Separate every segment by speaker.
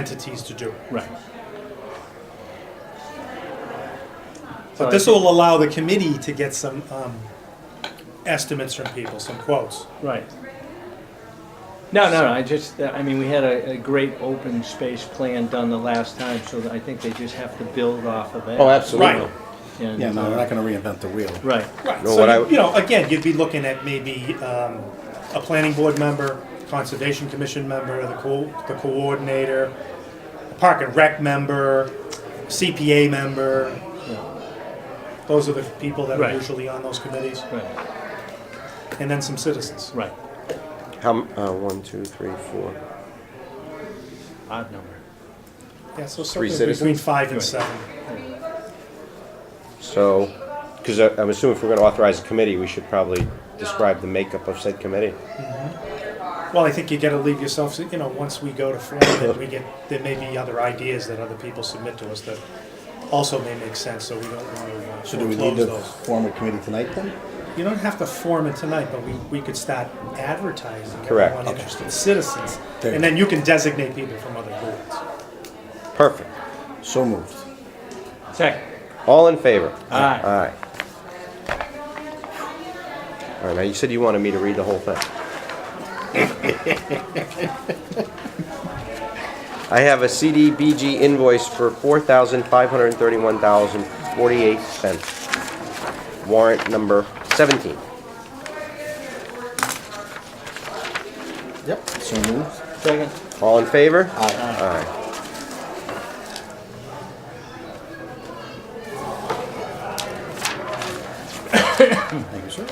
Speaker 1: entities to do it.
Speaker 2: Right.
Speaker 1: But this will allow the committee to get some um, estimates from people, some quotes.
Speaker 2: Right. No, no, no, I just, I mean, we had a, a great open space plan done the last time, so I think they just have to build off of that.
Speaker 3: Oh, absolutely.
Speaker 1: Right.
Speaker 2: And,
Speaker 4: Yeah, no,
Speaker 2: uh,
Speaker 4: we're not gonna reinvent the wheel.
Speaker 2: Right,
Speaker 1: Right.
Speaker 3: No, what I-
Speaker 1: So, you- you know, again, you'd be looking at maybe um, a planning board member, conservation commission member, the co- the coordinator, a park and rec member, CPA member. Those are the people that are
Speaker 2: Right.
Speaker 1: usually on those committees,
Speaker 2: right,
Speaker 1: and then some citizens.
Speaker 2: right,
Speaker 3: How, m- uh, one, two, three, four.
Speaker 2: odd number.
Speaker 1: Yeah, so
Speaker 3: Three
Speaker 1: something between
Speaker 3: citizens?
Speaker 1: five and
Speaker 2: Right.
Speaker 1: seven.
Speaker 3: So, because I'm assuming if we're gonna authorize a committee, we should probably describe the makeup of said committee.
Speaker 1: Well, I think you gotta leave yourself, you know, once we go to form, then we get, there may be other ideas that other people submit to us that also may make sense, so we don't wanna uh,
Speaker 4: So do we need
Speaker 1: foreclose
Speaker 4: to
Speaker 1: those.
Speaker 4: form a committee tonight then?
Speaker 1: You don't have to form it tonight, but we, we could start advertising
Speaker 3: Correct.
Speaker 1: everyone
Speaker 3: Okay.
Speaker 1: interested citizens.
Speaker 4: There you
Speaker 1: And then you can designate people from other boards.
Speaker 3: Perfect.
Speaker 4: So moved.
Speaker 2: Second,
Speaker 3: All in favor?
Speaker 2: Aye.
Speaker 3: Aye. All right, now you said you wanted me to read the whole thing. I have a CDBG invoice for four thousand five hundred thirty-one thousand forty-eight cents. Warrant number seventeen.
Speaker 4: Yep. So moved.
Speaker 2: second,
Speaker 3: All in favor?
Speaker 4: Aye.
Speaker 3: Aye.
Speaker 4: Thank you, sir.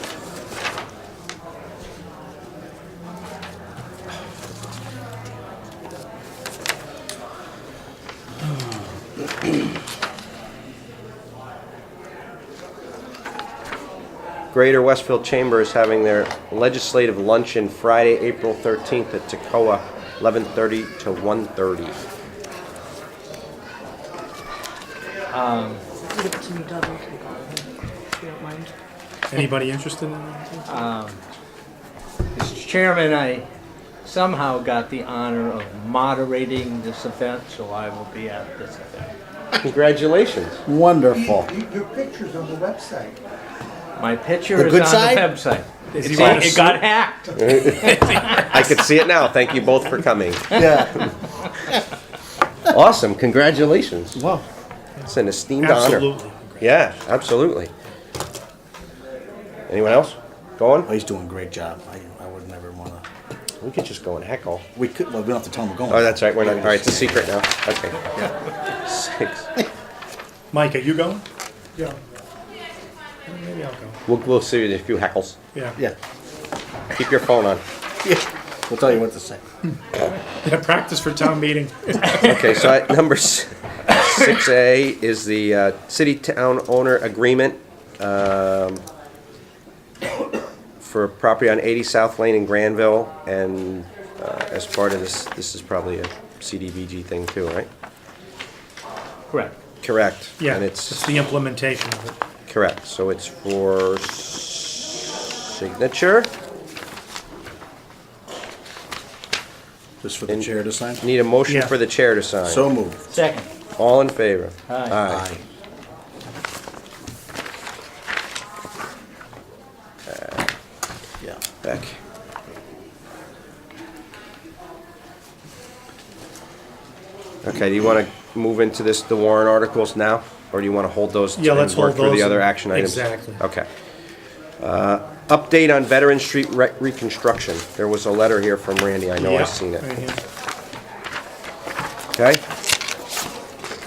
Speaker 3: Greater Westfield Chamber is having their legislative luncheon Friday, April thirteenth at Tacoa, eleven thirty to one thirty.
Speaker 5: Give it to me double, if you don't mind.
Speaker 1: Anybody interested in that?
Speaker 2: Mr. Chairman, I somehow got the honor of moderating this event, so I will be at this event.
Speaker 3: Congratulations.
Speaker 4: Wonderful.
Speaker 6: You- Your picture's on the website.
Speaker 2: My picture
Speaker 4: The
Speaker 2: is on
Speaker 4: good
Speaker 2: the
Speaker 4: side?
Speaker 2: website.
Speaker 1: Is
Speaker 2: It's
Speaker 1: he wearing
Speaker 2: all-
Speaker 1: a
Speaker 2: It got hacked.
Speaker 3: I could see it now. Thank you both for coming.
Speaker 4: Yeah.
Speaker 3: Awesome. Congratulations.
Speaker 4: Wow.
Speaker 3: It's an esteemed honor.
Speaker 1: Absolutely.
Speaker 3: Yeah, absolutely. Anyone else? Going?
Speaker 4: Well, he's doing a great job. I, I would never wanna,
Speaker 3: We could just go and heckle.
Speaker 4: we could, well, we don't have to tell him we're going.
Speaker 3: Oh, that's right. We're not. All right, it's a secret now. Okay. Six.
Speaker 1: Mike, are you going? Yeah. Maybe I'll go.
Speaker 3: We'll, we'll see you in a few heckles.
Speaker 1: Yeah.
Speaker 4: Yeah.
Speaker 3: Keep your phone on.
Speaker 4: We'll tell you what to say.
Speaker 1: Yeah, practice for town meeting.
Speaker 3: Okay, so at number s- 6A is the uh, city-town owner agreement um, for property on 80 South Lane in Granville, and uh, as part of this, this is probably a CDBG thing too, right?
Speaker 2: Correct.
Speaker 3: Correct.
Speaker 1: Yeah,
Speaker 3: And
Speaker 1: it's
Speaker 3: it's,
Speaker 1: the implementation of it.
Speaker 3: correct, so it's for signature.
Speaker 4: Just for the chair to sign.
Speaker 3: Need a motion
Speaker 1: Yeah.
Speaker 3: for the chair to sign.
Speaker 4: So moved.
Speaker 2: Second,
Speaker 3: All in favor?
Speaker 2: Aye.
Speaker 4: Aye. Yeah.
Speaker 3: Back. Okay, do you want to move into this, the Warren articles now? Or do you want to hold those?
Speaker 1: Yeah, let's
Speaker 3: and
Speaker 1: hold
Speaker 3: work through the
Speaker 1: those
Speaker 3: other
Speaker 1: and-
Speaker 3: action items?
Speaker 1: exactly.
Speaker 3: Okay. Uh, Update on Veteran Street re- reconstruction. There was a letter here from Randy, I know
Speaker 1: Yeah,
Speaker 3: I've seen
Speaker 1: right
Speaker 3: it.
Speaker 1: here.
Speaker 3: Okay?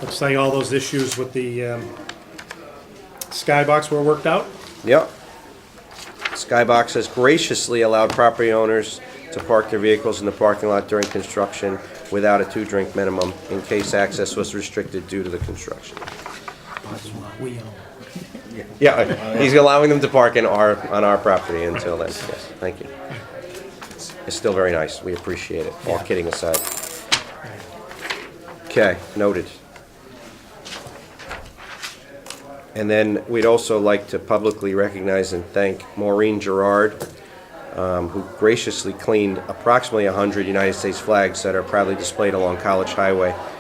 Speaker 1: Looks like all those issues with the um, skybox were worked out.
Speaker 3: Yep. Skybox has graciously allowed property owners to park their vehicles in the parking lot during construction without a two-drink minimum in case access was restricted due to the construction.
Speaker 1: We own.
Speaker 3: Yeah, he's allowing them to park in our, on our property until then, yes, thank you. It's still very nice, we appreciate it, all kidding aside. Okay, noted. And then we'd also like to publicly recognize and thank Maureen Gerard, um, who graciously cleaned approximately 100 United States flags that are proudly displayed along College Highway